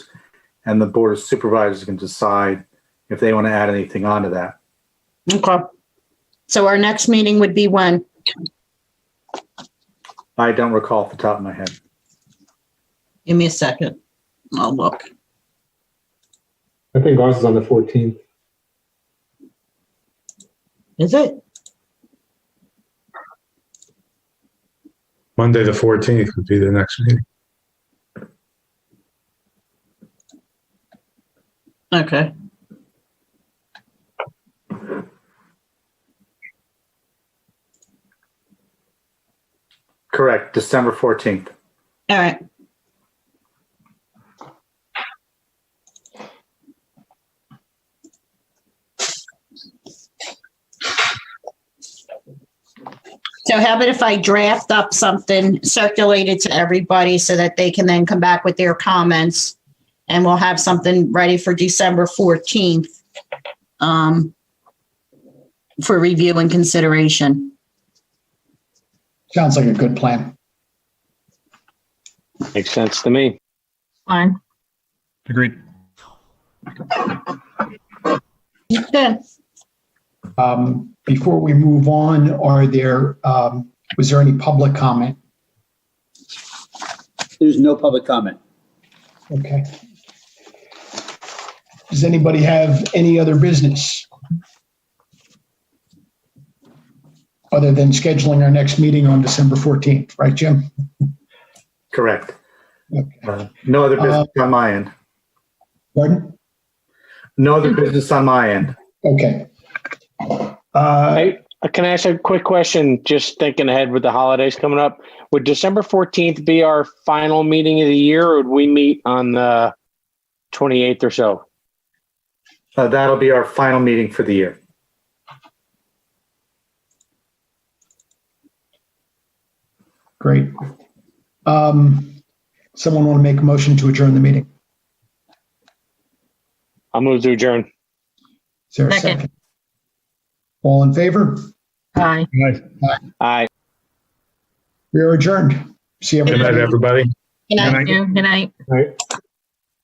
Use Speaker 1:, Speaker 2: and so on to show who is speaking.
Speaker 1: and the board of supervisors can decide if they want to add anything onto that.
Speaker 2: Okay. So our next meeting would be when?
Speaker 1: I don't recall off the top of my head.
Speaker 3: Give me a second. I'll look.
Speaker 4: I think ours is on the 14th.
Speaker 3: Is it?
Speaker 5: Monday, the fourteenth would be the next meeting.
Speaker 3: Okay.
Speaker 1: Correct, December 14th.
Speaker 3: All right.
Speaker 2: So how about if I draft up something, circulate it to everybody so that they can then come back with their comments? And we'll have something ready for December fourteenth. Um. For review and consideration.
Speaker 6: Sounds like a good plan.
Speaker 7: Makes sense to me.
Speaker 2: Fine.
Speaker 8: Agreed.
Speaker 2: Good.
Speaker 6: Um, Before we move on, are there, um, was there any public comment?
Speaker 9: There's no public comment.
Speaker 6: Okay. Does anybody have any other business? Other than scheduling our next meeting on December 14th, right, Jim?
Speaker 1: Correct.
Speaker 6: Okay.
Speaker 1: Uh, No other business on my end.
Speaker 6: Pardon?
Speaker 1: No other business on my end.
Speaker 6: Okay. Uh,
Speaker 7: Hey, Can I ask a quick question? Just thinking ahead with the holidays coming up, would December 14th be our final meeting of the year or would we meet on the 28th or so?
Speaker 1: Uh, That'll be our final meeting for the year.
Speaker 6: Great. Um, Someone want to make a motion to adjourn the meeting?
Speaker 7: I'll move to adjourn.
Speaker 6: Is there a
Speaker 3: Second.
Speaker 6: second? All in favor?
Speaker 3: Bye.
Speaker 7: Aye.
Speaker 6: We are adjourned. See
Speaker 5: Good night,
Speaker 6: everybody.
Speaker 5: everybody.
Speaker 2: Good night.
Speaker 5: Good night.
Speaker 3: Good night.